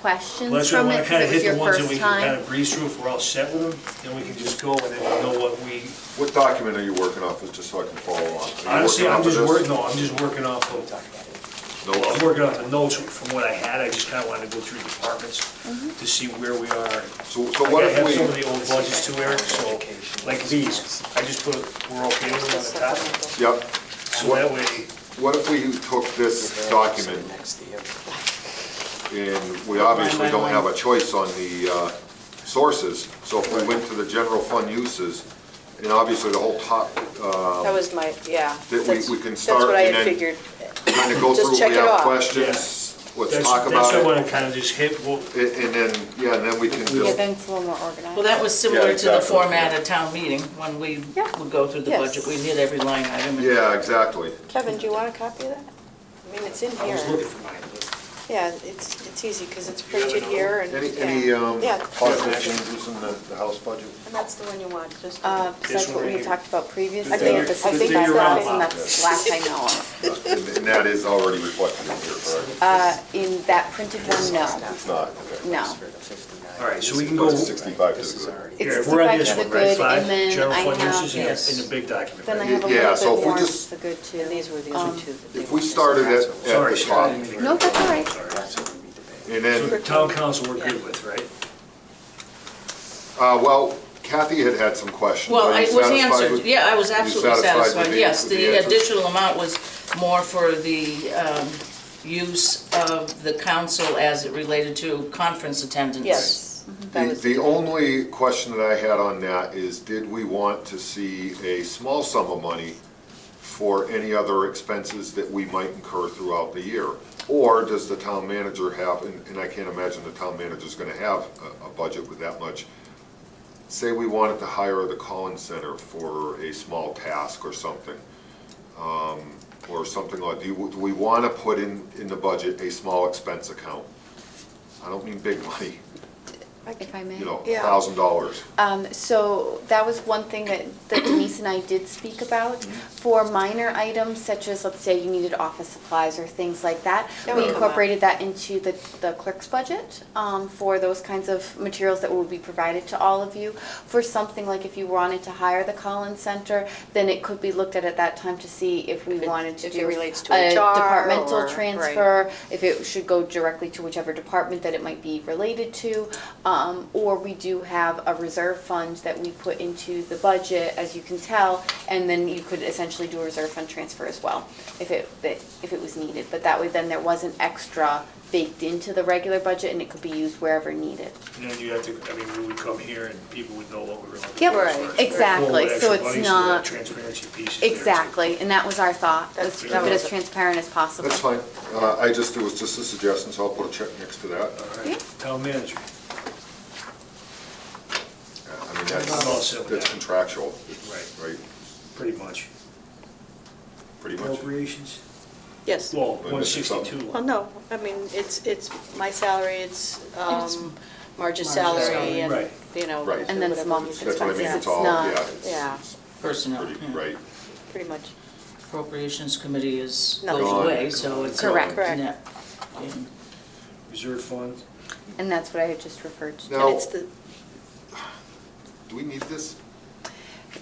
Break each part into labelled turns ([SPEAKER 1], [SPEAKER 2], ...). [SPEAKER 1] questions
[SPEAKER 2] Unless we
[SPEAKER 1] from
[SPEAKER 2] want
[SPEAKER 1] it
[SPEAKER 2] to kind
[SPEAKER 1] because
[SPEAKER 2] of
[SPEAKER 1] it was
[SPEAKER 2] hit
[SPEAKER 1] your
[SPEAKER 2] the ones that we
[SPEAKER 1] first
[SPEAKER 2] can kind
[SPEAKER 1] time.
[SPEAKER 2] of breeze through if we're all set with them, then we can just go and then we know what we,
[SPEAKER 3] What document are you working off of, just so I can follow on? Are you working
[SPEAKER 2] honestly,
[SPEAKER 3] off
[SPEAKER 2] I'm
[SPEAKER 3] of
[SPEAKER 2] just
[SPEAKER 3] this?
[SPEAKER 2] working, no, I'm just working off of,
[SPEAKER 3] No,
[SPEAKER 2] I'm
[SPEAKER 3] other?
[SPEAKER 2] working off the notes from what I had, I just kind of wanted to go through the departments to see where we are.
[SPEAKER 3] so,
[SPEAKER 2] Like,
[SPEAKER 3] so what
[SPEAKER 2] I have some
[SPEAKER 3] if
[SPEAKER 2] of
[SPEAKER 3] we,
[SPEAKER 2] the old budgets too, Eric, so, like these, I just put, we're okay with them on the top,
[SPEAKER 3] yep,
[SPEAKER 2] so that way,
[SPEAKER 3] what if we took this document, and we obviously don't have a choice on the, uh, sources, so if we went to the general fund uses, and obviously the whole top, uh,
[SPEAKER 4] That was my, yeah.
[SPEAKER 3] That we-
[SPEAKER 4] that's-
[SPEAKER 3] we can start
[SPEAKER 4] That's what I
[SPEAKER 3] and
[SPEAKER 4] had
[SPEAKER 3] then-
[SPEAKER 4] figured.
[SPEAKER 3] kind of go
[SPEAKER 4] Just
[SPEAKER 3] through,
[SPEAKER 4] check
[SPEAKER 3] we
[SPEAKER 4] it
[SPEAKER 3] have
[SPEAKER 4] off.
[SPEAKER 3] questions, let's
[SPEAKER 2] that's,
[SPEAKER 3] talk
[SPEAKER 2] that's what I
[SPEAKER 3] about it.
[SPEAKER 2] want to kind of just hit, well,
[SPEAKER 3] And and then, yeah, and then we can
[SPEAKER 1] Yeah,
[SPEAKER 3] just,
[SPEAKER 1] then it's a little more organized.
[SPEAKER 5] Well, that was similar to the
[SPEAKER 3] exactly.
[SPEAKER 5] format of town meeting, when we
[SPEAKER 4] Yeah.
[SPEAKER 5] would go through the
[SPEAKER 4] Yes.
[SPEAKER 5] budget, we hit every line item. and-
[SPEAKER 3] yeah, exactly.
[SPEAKER 4] Kevin, do you want a copy of that? I mean, it's in
[SPEAKER 2] I was
[SPEAKER 4] here.
[SPEAKER 2] looking for mine.
[SPEAKER 4] Yeah, it's, it's easy because it's printed here and.
[SPEAKER 3] Any,
[SPEAKER 4] yeah.
[SPEAKER 3] any um,
[SPEAKER 4] Yeah,
[SPEAKER 3] positive changes in the, the house budget?
[SPEAKER 4] and that's the one you want, just.
[SPEAKER 1] Uh, 'cause
[SPEAKER 2] This
[SPEAKER 1] that's
[SPEAKER 2] one
[SPEAKER 1] what
[SPEAKER 2] right
[SPEAKER 1] we
[SPEAKER 2] here.
[SPEAKER 1] talked about previously.
[SPEAKER 4] I think-
[SPEAKER 1] This
[SPEAKER 4] I
[SPEAKER 1] is
[SPEAKER 4] think
[SPEAKER 1] the
[SPEAKER 4] that's
[SPEAKER 1] last,
[SPEAKER 4] what-
[SPEAKER 1] and that's last I know of.
[SPEAKER 3] And and that is already reflected in here, correct?
[SPEAKER 1] Uh, in that printed one, no.
[SPEAKER 3] It's not, okay.
[SPEAKER 1] No.
[SPEAKER 2] All right, so we can
[SPEAKER 3] But
[SPEAKER 2] go,
[SPEAKER 3] it's 65 to the good.
[SPEAKER 1] It's
[SPEAKER 2] here,
[SPEAKER 1] the
[SPEAKER 2] we're on
[SPEAKER 1] back
[SPEAKER 2] this
[SPEAKER 1] of the
[SPEAKER 2] one, right,
[SPEAKER 1] good,
[SPEAKER 2] five,
[SPEAKER 1] and then
[SPEAKER 2] general
[SPEAKER 1] I
[SPEAKER 2] fund
[SPEAKER 1] have-
[SPEAKER 2] uses in the- in the big document,
[SPEAKER 1] Then I
[SPEAKER 2] right?
[SPEAKER 1] have a
[SPEAKER 3] Yeah,
[SPEAKER 1] little
[SPEAKER 3] so
[SPEAKER 1] bit
[SPEAKER 3] if we
[SPEAKER 1] more,
[SPEAKER 3] just-
[SPEAKER 1] the good too.
[SPEAKER 4] And these were the
[SPEAKER 1] Um,
[SPEAKER 4] only two that they
[SPEAKER 3] If we
[SPEAKER 4] wanted.
[SPEAKER 3] started at, at
[SPEAKER 2] Sorry,
[SPEAKER 3] the top,
[SPEAKER 2] sorry.
[SPEAKER 1] No, that's all right.
[SPEAKER 3] and
[SPEAKER 2] So
[SPEAKER 3] then,
[SPEAKER 2] town council we're good with, right?
[SPEAKER 3] uh, well, Kathy had had some questions.
[SPEAKER 5] Well,
[SPEAKER 3] Are you
[SPEAKER 5] it was
[SPEAKER 3] satisfied
[SPEAKER 5] answered,
[SPEAKER 3] with-
[SPEAKER 5] yeah, I was
[SPEAKER 3] Are you
[SPEAKER 5] absolutely
[SPEAKER 3] satisfied with
[SPEAKER 5] satisfied,
[SPEAKER 3] the-
[SPEAKER 5] yes,
[SPEAKER 3] with the
[SPEAKER 5] the
[SPEAKER 3] answers?
[SPEAKER 5] additional amount was more for the um, use of the council as it related to conference attendance.
[SPEAKER 4] Yes. that
[SPEAKER 3] Mm-hmm. The
[SPEAKER 4] was-
[SPEAKER 3] the only question that I had on that is, did we want to see a small sum of money for any other expenses that we might incur throughout the year? Or does the town manager have, and and I can't imagine the town manager's gonna have a- a budget with that much. Say we wanted to hire the Collins Center for a small task or something, um, or something like, do you- do we want to put in, in the budget a small expense account? I don't mean big money
[SPEAKER 1] If I may.
[SPEAKER 3] you know,
[SPEAKER 4] Yeah.
[SPEAKER 3] thousand dollars.
[SPEAKER 1] Um, so that was one thing that that Denise and I did speak about.
[SPEAKER 4] Mm-hmm.
[SPEAKER 1] For minor items such as, let's say you needed office supplies or things like that,
[SPEAKER 4] That
[SPEAKER 1] we
[SPEAKER 4] would come out.
[SPEAKER 1] incorporated that into the, the clerk's budget, um, for those kinds of materials that will be provided to all of you. For something like if you wanted to hire the Collins Center, then it could be looked at at that time to see if we
[SPEAKER 4] If it-
[SPEAKER 1] wanted to
[SPEAKER 4] if it
[SPEAKER 1] do
[SPEAKER 4] relates to
[SPEAKER 1] a
[SPEAKER 4] HR or-
[SPEAKER 1] departmental
[SPEAKER 4] right.
[SPEAKER 1] transfer, if it should go directly to whichever department that it might be related to. Um, or we do have a reserve fund that we put into the budget, as you can tell, and then you could essentially do a reserve fund transfer as well, if it, that- if it was needed. But that way, then there wasn't extra baked into the regular budget, and it could be used wherever needed.
[SPEAKER 2] And then you have to, I mean, we would come here and people would know what we were looking for.
[SPEAKER 1] Yep,
[SPEAKER 2] as far as
[SPEAKER 4] Right.
[SPEAKER 1] exactly.
[SPEAKER 2] full
[SPEAKER 1] So
[SPEAKER 2] actual
[SPEAKER 1] it's
[SPEAKER 2] money, that
[SPEAKER 1] not-
[SPEAKER 2] Transparency piece. is there, too.
[SPEAKER 1] Exactly, and that was our thought, was to keep it as transparent as possible.
[SPEAKER 3] That's fine. Uh, I just, it was just a suggestion, so I'll put a check next to that.
[SPEAKER 2] All
[SPEAKER 1] Yeah.
[SPEAKER 2] right, town manager,
[SPEAKER 3] I mean,
[SPEAKER 2] I'm all set
[SPEAKER 3] that's,
[SPEAKER 2] with
[SPEAKER 3] that's
[SPEAKER 2] that.
[SPEAKER 3] contractual,
[SPEAKER 2] right,
[SPEAKER 3] right,
[SPEAKER 2] pretty much.
[SPEAKER 3] pretty much.
[SPEAKER 2] Appropriations?
[SPEAKER 4] Yes.
[SPEAKER 2] Well,
[SPEAKER 3] Wait a minute,
[SPEAKER 2] one sixty-two.
[SPEAKER 4] Well, no, I mean, it's, it's my salary, it's um, Marge's
[SPEAKER 5] Marge's
[SPEAKER 4] salary
[SPEAKER 5] salary,
[SPEAKER 4] and,
[SPEAKER 2] right.
[SPEAKER 4] you know.
[SPEAKER 3] Right.
[SPEAKER 1] And then
[SPEAKER 4] whatever
[SPEAKER 1] small
[SPEAKER 4] we-
[SPEAKER 1] business
[SPEAKER 3] That's what I mean,
[SPEAKER 1] expenses, it's
[SPEAKER 3] it's all,
[SPEAKER 1] not-
[SPEAKER 3] yeah. it's-
[SPEAKER 4] Yeah,
[SPEAKER 5] Personnel.
[SPEAKER 3] pretty-
[SPEAKER 5] yeah.
[SPEAKER 3] Right.
[SPEAKER 4] pretty much.
[SPEAKER 5] Appropriations committee is,
[SPEAKER 4] Nothing.
[SPEAKER 5] goes away, so it's.
[SPEAKER 1] Correct.
[SPEAKER 4] Correct.
[SPEAKER 5] net. And
[SPEAKER 2] Reserve fund,
[SPEAKER 1] And that's what I had just referred to.
[SPEAKER 4] And
[SPEAKER 3] Now,
[SPEAKER 4] it's the,
[SPEAKER 3] do we need this?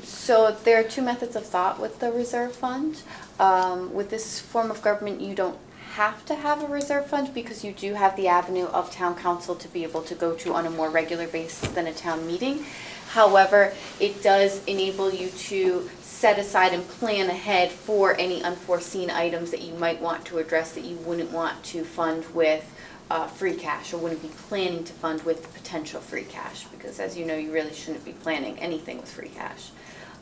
[SPEAKER 1] So there are two methods of thought with the reserve fund. Um, with this form of government, you don't have to have a reserve fund because you do have the avenue of town council to be able to go to on a more regular basis than a town meeting. However, it does enable you to set aside and plan ahead for any unforeseen items that you might want to address that you wouldn't want to fund with uh, free cash or wouldn't be planning to fund with potential free cash because as you know, you really shouldn't be planning anything with free cash.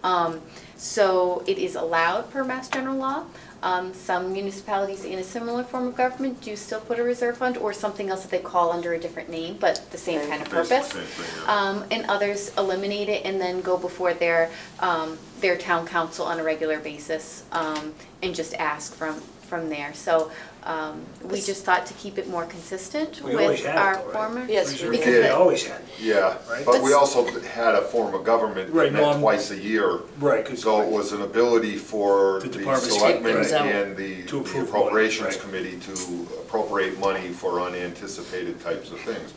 [SPEAKER 1] Um, so it is allowed per Mass General Law. Um, some municipalities in a similar form of government do still put a reserve fund or something else that they call under a different name, but the same kind of
[SPEAKER 3] Basically
[SPEAKER 1] purpose.
[SPEAKER 3] same thing, yeah.
[SPEAKER 1] Um, and others eliminate it and then go before their, um, their town council on a regular basis, um, and just ask from, from from there. So um, we just thought to keep it more consistent
[SPEAKER 2] We always
[SPEAKER 1] with
[SPEAKER 2] had it
[SPEAKER 1] our
[SPEAKER 2] though, right?
[SPEAKER 1] former.
[SPEAKER 4] Yes, we
[SPEAKER 2] Reserve
[SPEAKER 1] did.
[SPEAKER 2] fund, We always had. it.
[SPEAKER 3] Yeah,
[SPEAKER 2] Right.
[SPEAKER 3] but we also had a form of government
[SPEAKER 2] Right,
[SPEAKER 3] that met
[SPEAKER 2] non-
[SPEAKER 3] twice a year.
[SPEAKER 2] Right, 'cause-
[SPEAKER 3] So it was an ability for
[SPEAKER 2] The
[SPEAKER 3] the
[SPEAKER 2] departments-
[SPEAKER 3] selectmen
[SPEAKER 5] Right.
[SPEAKER 3] and the
[SPEAKER 2] To
[SPEAKER 3] the
[SPEAKER 2] approve money,
[SPEAKER 3] appropriations
[SPEAKER 2] right.
[SPEAKER 3] committee to appropriate money for unanticipated types of things.